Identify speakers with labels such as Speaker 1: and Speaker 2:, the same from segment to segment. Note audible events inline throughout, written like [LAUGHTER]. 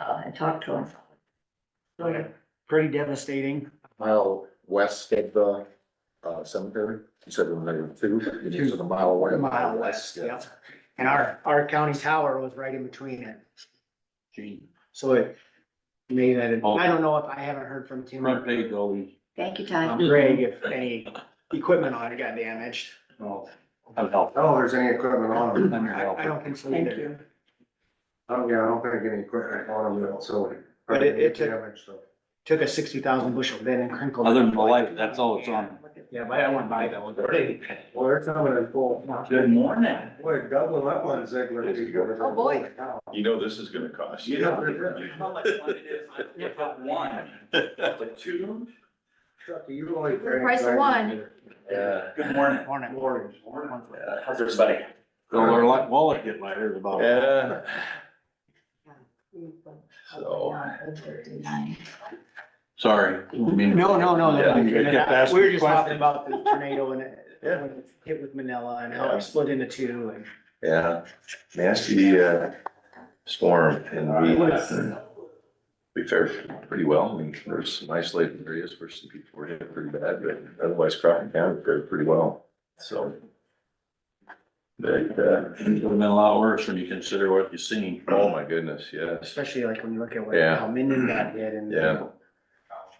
Speaker 1: uh, and talk to him.
Speaker 2: Okay. Pretty devastating.
Speaker 3: mile west of the uh, cemetery. You said it was there two, it is a mile away.
Speaker 2: A mile west,
Speaker 3: yeah.
Speaker 2: yep. And our, our county tower was right in between it. So it made that, I don't know if I haven't heard from Tim
Speaker 4: Front
Speaker 2: or
Speaker 4: page always,
Speaker 1: Thank you, Todd.
Speaker 2: Greg if any equipment on it got damaged.
Speaker 4: no, I'll help.
Speaker 3: I don't know if there's any equipment on them.
Speaker 2: I, I don't think so
Speaker 1: Thank
Speaker 2: either.
Speaker 1: you.
Speaker 3: I don't, Oh, yeah, I don't think any equipment on them, so.
Speaker 2: But it- it took-
Speaker 3: Damage, so.
Speaker 2: Took a sixty thousand bushel bin and crinkled. it.
Speaker 4: Other than the light, that's all Oh, it's on.
Speaker 2: Yeah, but I went by that one.
Speaker 3: Well, they're coming in full.
Speaker 4: Good morning.
Speaker 3: Boy, doubling up on Ziegler.
Speaker 1: Oh, boy.
Speaker 5: You know this is gonna cost you.
Speaker 3: Yeah, yeah.
Speaker 4: How much fun it is, I get up one, but two,
Speaker 3: Chucky, you only.
Speaker 1: For the price of one.
Speaker 3: Yeah.
Speaker 4: good morning.
Speaker 2: Morning.
Speaker 4: How's everybody? Well, our li- wallet get lighter about.
Speaker 5: Yeah, So- sorry.
Speaker 2: No, no, no,
Speaker 5: Yeah,
Speaker 2: no.
Speaker 4: you kept asking
Speaker 2: We were just talking
Speaker 4: questions.
Speaker 2: about the tornado and it,
Speaker 5: Yeah.
Speaker 2: when it hit with Manila and how
Speaker 5: Yeah.
Speaker 2: it split into two and.
Speaker 5: Yeah, nasty, uh, storm and we, we fared pretty well. I mean, there's some isolated areas where some people were hit pretty bad, but otherwise Crockett County fared pretty well, so. But, uh,
Speaker 4: It would have been a lot worse when you consider what you've seen.
Speaker 5: oh my goodness, yes,
Speaker 2: Especially like when you look at what,
Speaker 5: Yeah.
Speaker 2: how Minden got hit and.
Speaker 5: Yeah.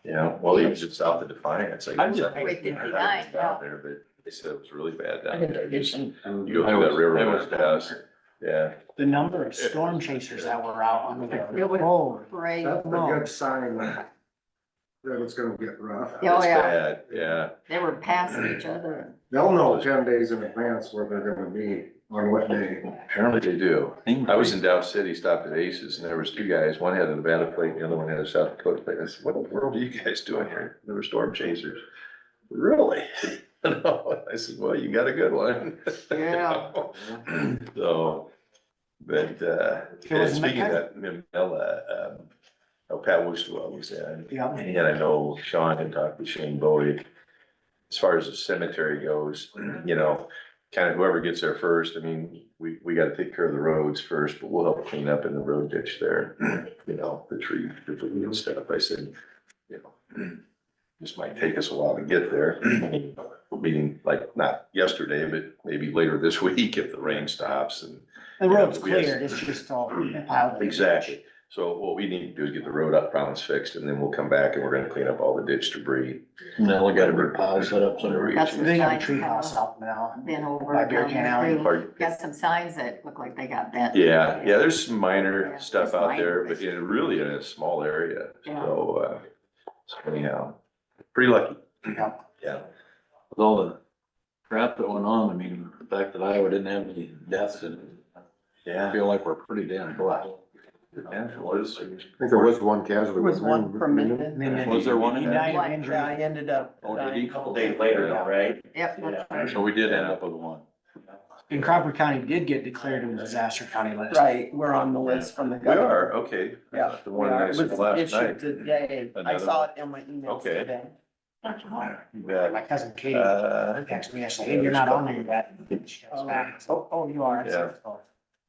Speaker 5: yeah, well, even just south of Defiance, I
Speaker 4: I'm
Speaker 5: guess.
Speaker 4: just-
Speaker 5: I-
Speaker 1: Wait, did
Speaker 5: I
Speaker 1: we
Speaker 5: was
Speaker 1: die?
Speaker 5: Down there, but they said it was really bad down there. Just-
Speaker 4: You
Speaker 5: go through that river when it does. Yeah,
Speaker 2: The number of storm chasers that were out on the road. Oh,
Speaker 1: Right.
Speaker 3: That's a
Speaker 2: No.
Speaker 3: good sign. That it's gonna get rough.
Speaker 1: Yeah.
Speaker 5: it's
Speaker 1: yeah.
Speaker 5: bad, yeah.
Speaker 1: They were passing each other.
Speaker 3: They'll know ten days in advance where they're gonna be, on what day.
Speaker 5: Apparently they do. I was in Dow City, stopped at Aces, and there was two guys. One had a Nevada plate, and the other one had a South Dakota plate. I said, what in the world are you guys doing here? They were storm chasers. Really? [LAUGHS] I said, well, you got a good one.
Speaker 1: Yeah.
Speaker 5: [LAUGHS] So, but, uh,
Speaker 2: It was
Speaker 5: and speaking of
Speaker 2: Mecca?
Speaker 5: that, Mimella, um, oh, Pat Wustula was in.
Speaker 2: yeah.
Speaker 5: And I know Sean had talked with Shane Bowie. As far as the cemetery goes, you know, kind of whoever gets there first, I mean, we, we gotta take care of the roads first, but we'll help clean up in the road ditch there. You know, the tree, the tree and stuff. I said, you know, this might take us a while to get there. Meaning like not yesterday, but maybe later this [LAUGHS] week if the rain stops and
Speaker 2: The road's
Speaker 5: Yeah, yes.
Speaker 2: cleared, it's just all piled. in.
Speaker 5: Exactly. So what we need to do is get the road up problems fixed and then we'll come back and we're gonna clean up all the ditch debris.
Speaker 4: Now we got a big pile set up
Speaker 5: Whatever
Speaker 4: somewhere.
Speaker 5: we
Speaker 1: That's-
Speaker 2: They got a tree house out now.
Speaker 1: Been over.
Speaker 2: By Bear
Speaker 1: down
Speaker 2: Can
Speaker 1: there
Speaker 2: Alley.
Speaker 1: too.
Speaker 5: Pardon?
Speaker 1: Got some signs that look like they got bent.
Speaker 5: Yeah, yeah, there's some minor
Speaker 1: Yeah,
Speaker 5: stuff
Speaker 1: just
Speaker 5: out there,
Speaker 1: minor.
Speaker 5: but in really in a small area,
Speaker 1: Yeah.
Speaker 5: so, uh, so anyhow, pretty lucky.
Speaker 2: Yeah.
Speaker 5: Yeah,
Speaker 4: With all the crap that went on, I mean, the fact that Iowa didn't have any deaths and I
Speaker 5: yeah.
Speaker 4: feel like we're pretty damn blessed.
Speaker 5: Yeah, well, it's-
Speaker 3: I think there was one casualty.
Speaker 6: There was one from Minden.
Speaker 2: Minden.
Speaker 4: Was there one in
Speaker 2: He
Speaker 4: there?
Speaker 2: died of
Speaker 1: One
Speaker 2: injury.
Speaker 6: I ended up.
Speaker 4: Oh, did
Speaker 6: dying
Speaker 4: he?
Speaker 6: a couple
Speaker 4: Days
Speaker 5: later, though,
Speaker 6: right?
Speaker 1: Yep, that's right.
Speaker 4: So we did end up with one.
Speaker 2: And Cropper County did get declared a disaster county last.
Speaker 6: Right, we're on the list from the
Speaker 5: We
Speaker 6: governor.
Speaker 5: are, okay. Uh,
Speaker 6: Yeah.
Speaker 5: The one
Speaker 6: we are.
Speaker 5: that I
Speaker 6: It
Speaker 5: said
Speaker 6: was
Speaker 5: last
Speaker 6: issued
Speaker 5: night.
Speaker 6: Today, I
Speaker 5: Another
Speaker 6: saw it in my emails
Speaker 5: Okay.
Speaker 6: today.
Speaker 5: Yeah.
Speaker 2: My cousin Katie
Speaker 5: Uh,
Speaker 2: texted me, I said, hey, you're not on there yet. She goes back, Oh, oh, you are. I said, "Oh."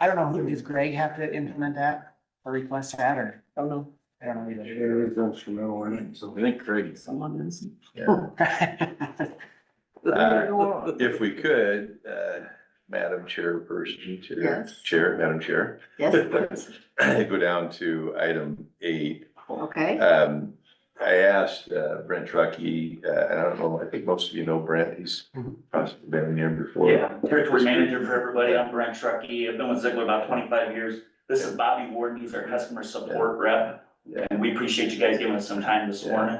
Speaker 2: I don't know, who, does Greg have to implement that or request that or,
Speaker 6: Don't know,
Speaker 2: I don't know
Speaker 3: It
Speaker 2: either.
Speaker 3: is instrumental in it, so.
Speaker 4: I think Craig.
Speaker 6: someone is.
Speaker 5: Uh, If we could, uh, Madam Chairperson, Chair,
Speaker 1: Yes.
Speaker 5: Chair, Madam Chair, [CLEARS THROAT]
Speaker 1: Yes,
Speaker 5: go down to item eight.
Speaker 2: Uh,
Speaker 1: okay.
Speaker 5: Um, I asked uh, Brent Truckee, uh, and I don't know, I think most of you know Brent, he's
Speaker 2: Mhm.
Speaker 5: possibly been here before.
Speaker 7: Yeah, territory manager for everybody. I'm Brent Truckee. I've been with Ziegler about twenty-five years. This is Bobby Ward. He's our customer support rep.
Speaker 5: Yeah.
Speaker 7: And we appreciate you guys giving us some time this
Speaker 5: Yeah.
Speaker 7: morning.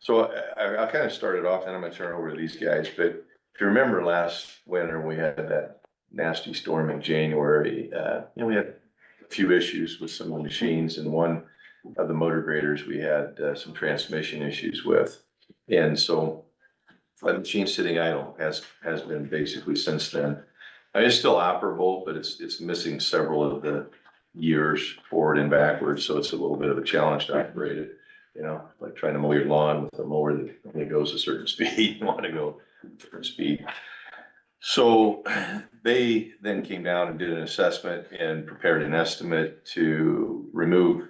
Speaker 5: So I, I- I'll kind of start it off, and I'm gonna turn it over to these guys, but if you remember last winter, we had that nasty storm in January, uh, you know, we had a few issues with some of the machines, and one of the motor graders, we had, uh, some transmission issues with. And so that machine sitting idle has, has been basically since then. I mean, it's still operable, but it's, it's missing several of the years forward and backwards, so it's a little bit of a challenge to operate it you know, like trying to mow your lawn with a mower that only goes a certain [LAUGHS] speed, you wanna go a different speed. So they then came down and did an assessment and prepared an estimate to remove